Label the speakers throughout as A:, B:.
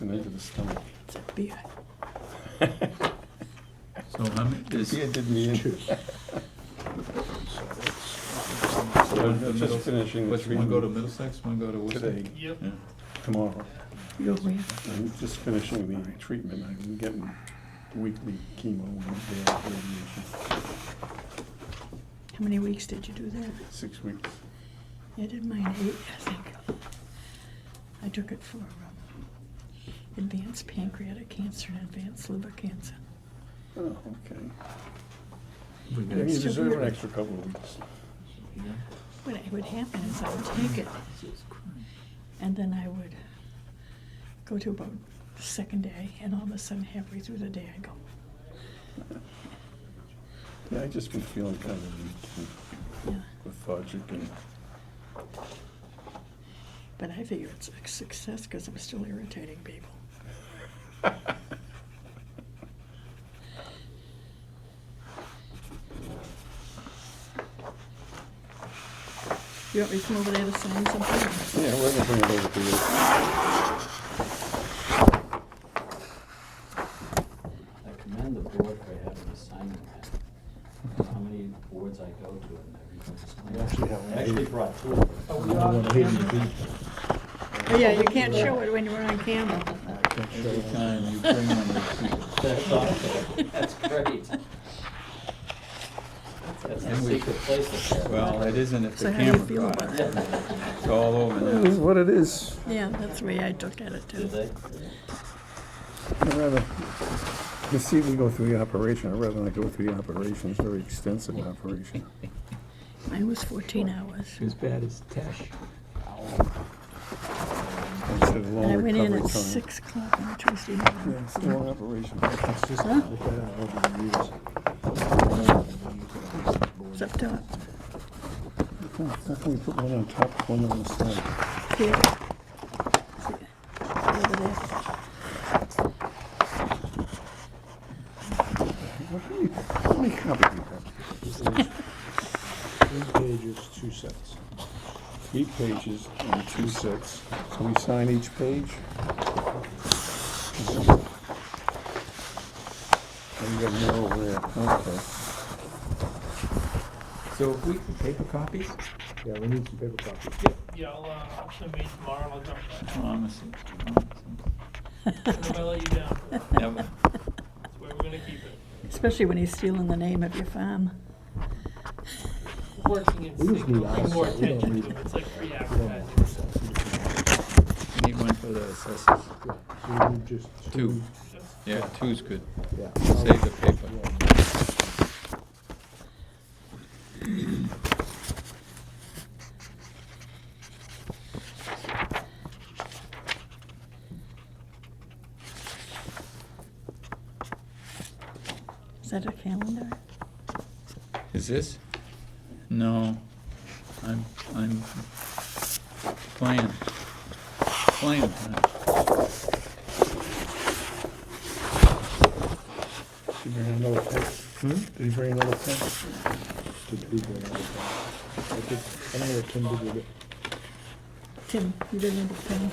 A: And into the stomach.
B: So how many, is,
A: Beer did me in. I'm just finishing the
B: what's,
A: three
B: one go to Middlesex, one go to Worcester?
A: today,
C: Yep.
B: Yeah.
A: tomorrow.
D: You're where?
A: I'm just finishing the treatment. I'm getting weekly chemo and uh, radiation,
D: How many weeks did you do that?
A: six weeks.
D: I did mine eight, I think. I took it for um, advanced pancreatic cancer and advanced liver cancer.
A: Oh, okay.
B: We
A: You
B: got-
D: It's still
A: deserve an
D: here.
A: extra couple of weeks.
D: What would happen is I would take it,
B: Jesus Christ.
D: and then I would go to about the second day, and all of a sudden, halfway through the day, I go,
A: Yeah, I just been feeling kind of weak
D: yeah.
A: and lethargic and,
D: But I figure it's a success because I'm still irritating people. You want me to come over there to sign something?
A: yeah, we're gonna bring it over to
B: Oh,
A: you.
E: I commend the board for having a signing pad. How many boards I go to and everything's. We actually have. I actually brought two of them.
D: Oh, yeah, you can't show it when you're on camera.
B: Every time you bring one of those people.
E: That's awesome. That's great. That's a
B: And we-
E: secret place up there.
B: Well, it isn't if
D: So
B: the
D: how do you feel
B: camera
D: about
B: caught it.
E: Yeah.
B: It's all over
A: It is
B: now.
A: what it is.
D: Yeah, that's the way I look at it
E: Did
D: too.
E: they?
A: I'd rather, you see, we go through the operation, I'd rather not go through the operation, it's a very extensive operation.
D: Mine was fourteen hours.
B: As bad as Tesh.
A: It's a long
D: And I went in
A: recovery time.
D: at six o'clock on Tuesday morning.
A: Yeah, it's a long operation.
D: It's up top.
A: Hmm, How can we put one on top, one on the side?
D: Here. See, Over there.
A: What do you- How many copies do you have?
F: Three pages, two sets.
A: Three pages and two sets. So we sign each page? And you got more over there, okay.
B: So if we could paper copies?
F: Yeah, we need some paper copies.
C: Yeah, I'll, uh, I'll send me tomorrow and I'll drop that.
B: Promise.
C: And if I let you down,
B: Never.
C: that's where we're gonna keep it.
D: Especially when he's stealing the name of your farm.
C: Working in
F: We just need
C: pay more
F: eyesight, we don't
C: attention
F: need.
C: to it, it's like free advertising.
B: Need one for the assessors.
F: Yeah, So we need just
B: Two.
F: two.
B: Yeah, two's good.
F: Yeah.
B: Save the paper.
D: Is that a calendar?
B: Is this? No, I'm, I'm playing, playing time.
A: Did you bring another pen? Did you bring another pen?
F: Did we do another thing? I did- I don't know what Tim did with it.
D: Tim, you didn't have a pen.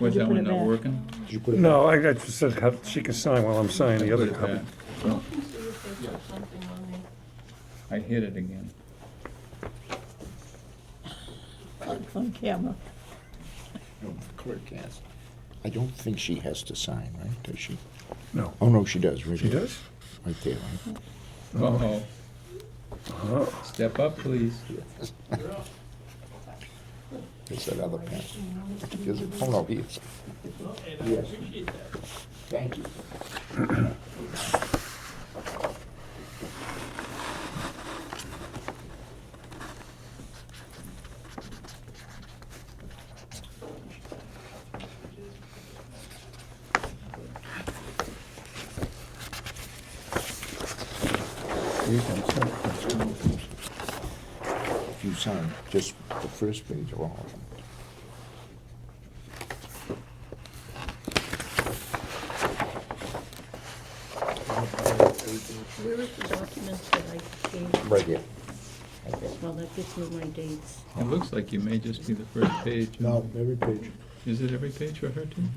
B: Was
D: You
B: that
D: put
B: one
D: it
B: not
D: back.
B: working?
F: Did you put it?
A: No, I I just said how- she can sign while I'm signing the
B: Put
A: other
B: it
A: copy.
B: back. I hit it again.
D: On camera.
A: Clerk has.
G: I don't think she has to sign, right? Does she?
A: No.
G: Oh, no, she does, right
A: She
G: there.
A: does?
G: Right there, right?
B: Uh-oh,
A: Oh,
B: step up, please.
G: There's that other pen. Is it? Oh, no, he is.
C: And I appreciate that.
G: Thank you.
A: you can sign.
G: If you sign just the first page of all of them.
H: Where is the documents that I gave?
G: Right here.
H: Well, that gives me my dates.
B: It looks like you may just be the first page.
F: No, every page.
B: Is it every page for her too?